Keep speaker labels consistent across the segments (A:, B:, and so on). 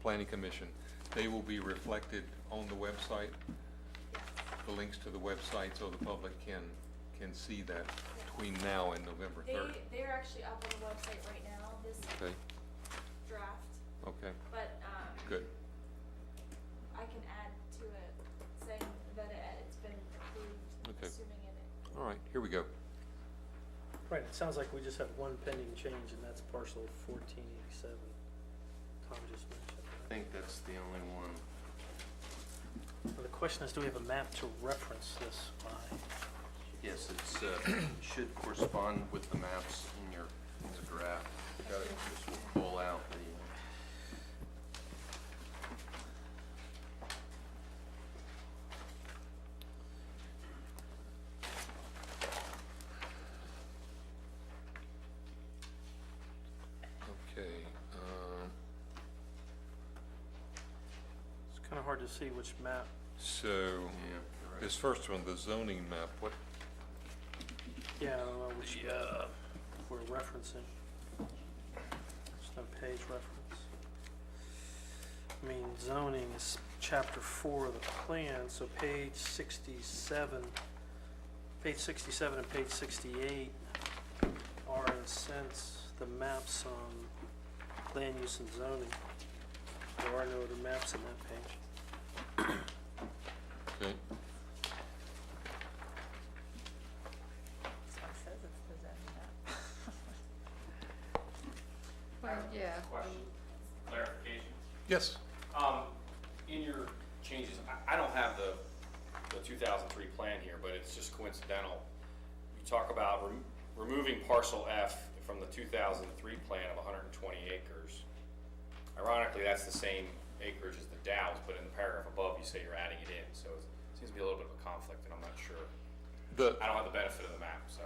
A: planning commission, they will be reflected on the website, the links to the website, so the public can, can see that between now and November
B: They,
A: third.
B: they're actually up on the website right now, this
A: Okay,
B: draft,
A: okay,
B: but, um,
A: good.
B: I can add to it, saying that it, it's been approved,
A: Okay.
B: assuming it.
A: All right, here we go.
C: Right, it sounds like we just have one pending change, and that's parcel fourteen eighty-seven. Tom just mentioned.
D: I
C: right?
D: think that's the only one.
C: Now, The question is, do we have a map to reference this by?
D: Yes, it's, uh, should correspond with the maps in your, in the graph.
B: Got it.
D: This will pull out the,
A: Okay, um,
C: It's kind of hard to see which map.
A: so,
D: yeah, you're right.
A: this first one, the zoning map, what,
C: Yeah, I don't know which
D: The,
C: map
D: uh,
C: we're referencing. There's no page reference. I mean, zoning is chapter four of the plan, so page sixty-seven, page sixty-seven and page sixty-eight are in a sense the maps on land use and zoning. There are no other maps on that page.
A: okay,
E: That's what it says it's the zoning map.
F: Well, yeah.
G: Question, clarification.
A: yes,
G: Um, in your changes, I, I don't have the, the two thousand three plan here, but it's just coincidental. You talk about rem- removing parcel F from the two thousand three plan of hundred and twenty acres. Ironically, that's the same acreage as the Dow's, but in the paragraph above, you say you're adding it in, so it seems to be a little bit of a conflict, and I'm not sure.
A: the.
G: I don't have the benefit of the map, so.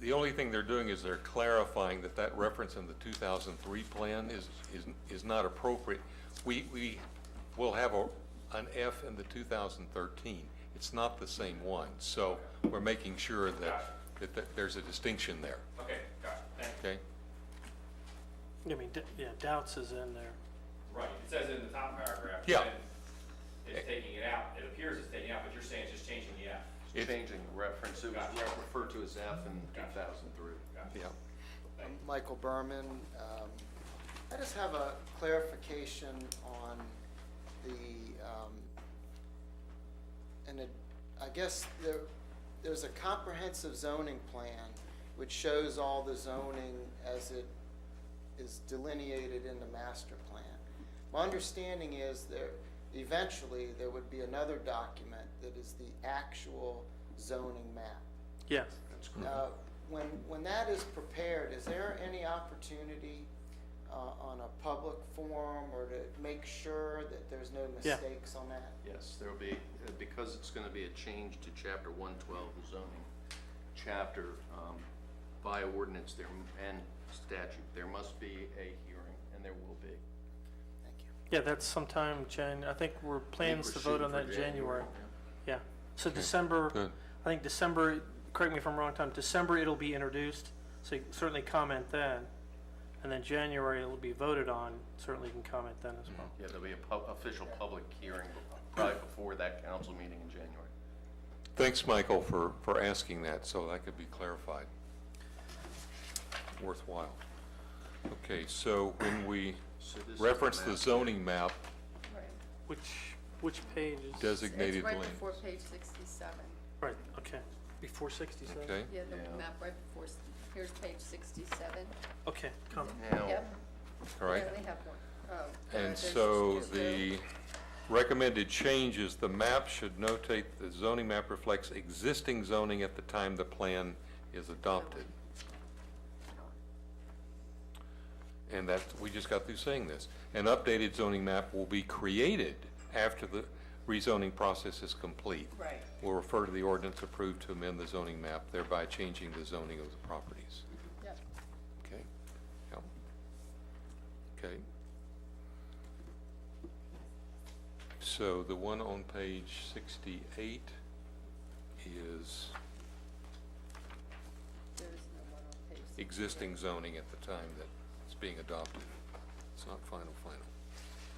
A: The only thing they're doing is they're clarifying that that reference in the 2003 plan is, is, is not appropriate. We, we will have a, an F in the 2013. It's not the same one. So we're making sure that, that th- there's a distinction there,
G: Okay, got it, thank you.
A: okay?
C: I mean, d- yeah, doubts is in there.
G: Right, it says in the top paragraph.
A: Yeah.
G: then It's taking it out, it appears it's taking it out, but you're saying it's just changing the F.
A: It-
D: Changing the reference, it was
G: Gotcha.
D: referred to as F in two thousand three.
G: Gotcha.
A: Yeah,
G: Thank you.
H: Michael Berman. Um, I just have a clarification on the, um, and it, I guess there, there's a comprehensive zoning plan which shows all the zoning as it is delineated in the master plan. My understanding is there, eventually, there would be another document that is the actual zoning map.
C: Yes.
D: That's
H: Uh, When, when that is prepared, is there any opportunity uh, on a public forum or to make sure that there's no
C: Yeah.
H: mistakes on that?
D: Yes, there'll be, uh, because it's gonna be a change to chapter one twelve zoning chapter, um, by ordinance there, and statute, there must be a hearing, and there will be.
H: Thank you.
C: Yeah, that's sometime Jan, I think we're plans to vote on that in January. Yeah, so December,
A: good.
C: I think December, correct me if I'm wrong, Tom, December it'll be introduced, so you can certainly comment then. And then January it'll be voted on, certainly you can comment then as well.
D: Yeah, there'll be a pub, official public hearing, probably before that council meeting in January.
A: Thanks, Michael, for, for asking that, so that could be clarified. Worthwhile. Okay, so when we
D: So this is the
A: reference the
D: map.
A: zoning map Mm-hmm.
F: Right.
C: Which, which page is?
A: designated
F: It's right
A: land.
F: before page sixty-seven.
C: Right, okay, before sixty-seven?
A: Okay,
F: Yeah, the
D: Yeah.
F: map right before, s- here's page sixty-seven.
C: Okay, come,
D: Now,
F: Yep.
A: all right.
F: Yeah, they have one. Oh, there-
A: Oh, And
F: there's just
A: so
F: two.
A: the recommended change is the map should notate the zoning map reflects existing zoning at the time the plan is adopted. And that, we just got through saying this. An updated zoning map will be created after the rezoning process is complete.
E: Right.
A: Will refer to the ordinance approved to amend the zoning map, thereby changing the zoning of the properties.
F: Yep.
A: Okay, yeah. Okay. So the one on page sixty-eight is
F: There is no one on page 68.
A: existing zoning at the time that it's being adopted. It's not final, final.